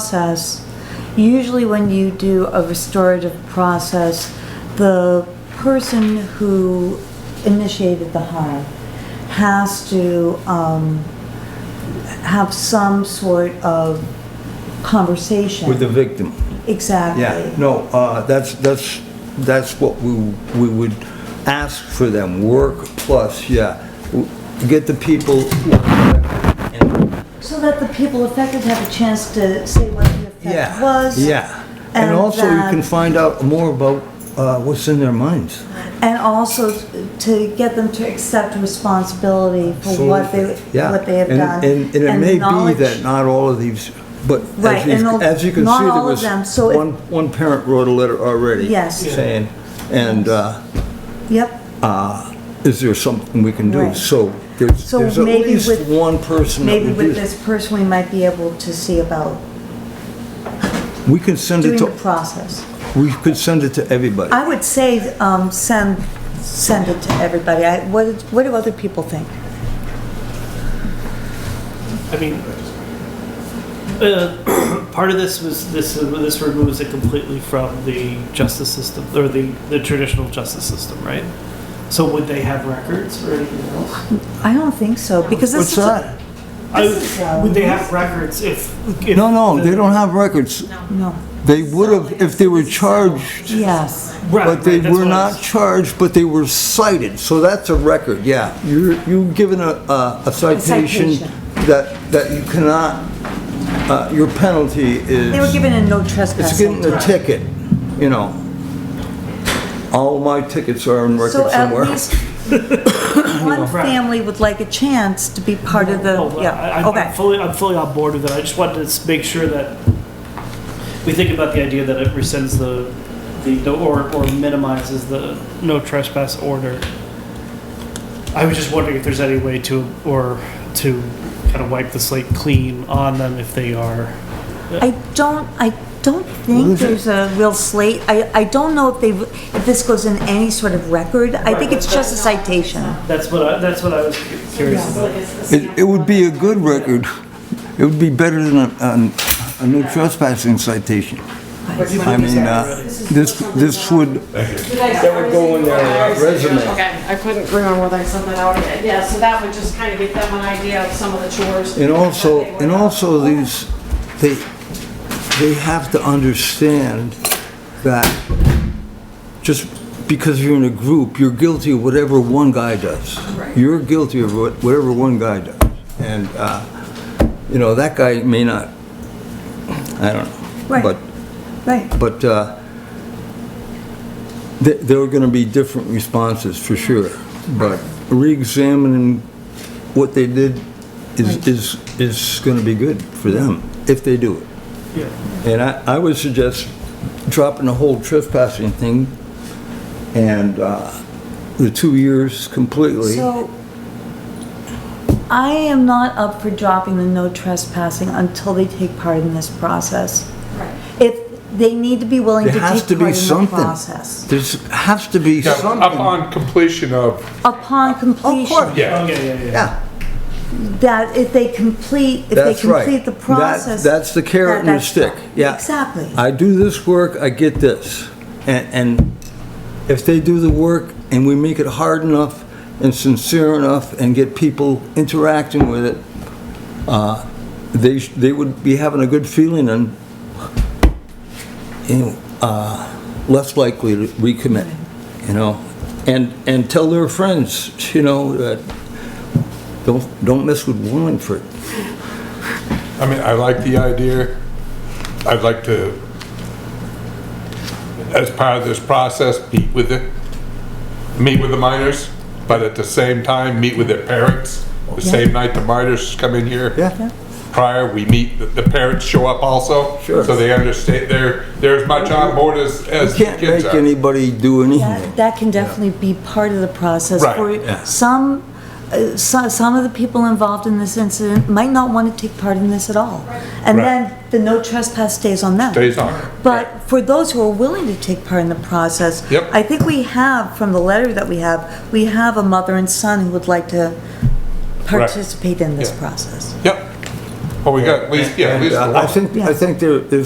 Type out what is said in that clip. process, usually when you do a restorative process, the person who initiated the harm has to um, have some sort of conversation. With the victim. Exactly. Yeah, no, uh, that's, that's, that's what we, we would ask for them, work plus, yeah. W- Get the people, So that the people affected have a chance to say what the effect yeah, was. yeah. And and also you can that- find out more about uh, what's in their minds. And also to get them to accept responsibility for what they, Yeah. what they have And- done. And, and it the may be knowledge- that not all of these, but Right, as you, and as you can not see, there all of was them, so if- one, one parent wrote a letter already. Yes. Saying, and, uh, Yep, uh, is there something we can do? Right. So there's, So there's at maybe least with- one person that maybe would with do. this person, we might be able to see about We can send doing it the to, process. we could send it to everybody. I would say, um, send, send it to everybody. I, what, did- what do other people think? I mean, uh, part of this was this this removes it completely from the justice system or the, the traditional justice system, right? So would they have records or anything else? I don't think so, because this is. What's a- that? This is, uh, I, would they have records if? if No, no, the- they don't have records. No, They would have if they were charged, yes, Right, but they right, that's were what I was- not charged, but they were cited. So that's a record, yeah. You're, you've given a, a a citation citation. that, that you cannot, uh, your penalty is. they were given a no It's getting trespassing. a ticket, you know. All my tickets are in So at record somewhere. least one family would like a chance to be part of the, No, Oh, I- yeah, I'm okay. fully, I'm fully on board with it. I just wanted to s- make sure that we think about the idea that it rescinds the, the, or, or minimizes the no trespass order. I was just wondering if there's any way to, or to kind of wipe the slate clean on them if they are. I don't, I don't think there's a real slate. I, I don't know if they, if this goes in any sort of record. I think it's just a citation. That's what I, that's what I was curious about. It, it would be a good record. It would be better than a, an- a no trespassing citation. I mean, uh, this, this would, That would go in their, uh, resume. Okay, I couldn't remember whether I sent that out. yet. Yeah, so that would just kind of give them an idea of some of the chores. and also, that they and were- also these, they, they have to understand that just because you're in a group, you're guilty of whatever one guy does. Right. You're guilty of what- whatever one guy does. And, uh, you know, that guy may not, I don't know. Right. But Right. But uh, th- there are going to be different responses, for sure. But reexamining what they did is, is, is going to be good for them, if they do it. Yeah. And I, I would suggest dropping the whole trespassing thing and uh, the two years completely. So I am not up for dropping the no trespassing until they take part in this process. If they need to be willing to There take has part to in be the something. process. There's, has to be Yeah, Up something. on completion of, Upon Of course, completion, yeah. Okay, yeah, yeah, yeah. yeah. that if they complete, if they That's right. complete the That- process. that's the carrot that- and the that's- stick. Yeah. Exactly. I do this work, I get this. And, and if they do the work and we make it hard enough and sincere enough and get people interacting with it, uh, they, sh- they would be having a good feeling and, you know, uh, less likely to recommit, you know? And, and tell their friends, you know, that, don't, don't mess with Wallingford. I mean, I like the idea. I'd like to, as part of this process, meet with the, meet with the minors, but at the same time, meet with their parents. The same night the minors come in here. Yeah. Prior, we meet, the- the parents show up also. Sure. So they understand, they're, they're as much on board as, as the Can't kids make are. anybody do anything. That, that can definitely be part of the process. Right, for yeah. Some, uh, so- some of the people involved in this incident might not want to take part in this at all. And Right. then the no trespass stays on them. Stays on. But for those who are willing to take part in the process. Yep. I think we have, from the letter that we have, we have a mother and son who would like to participate in this Yeah. process. Yep. Well, we got, we, yeah, at least. And, uh, one. uh, I think, I think there, there's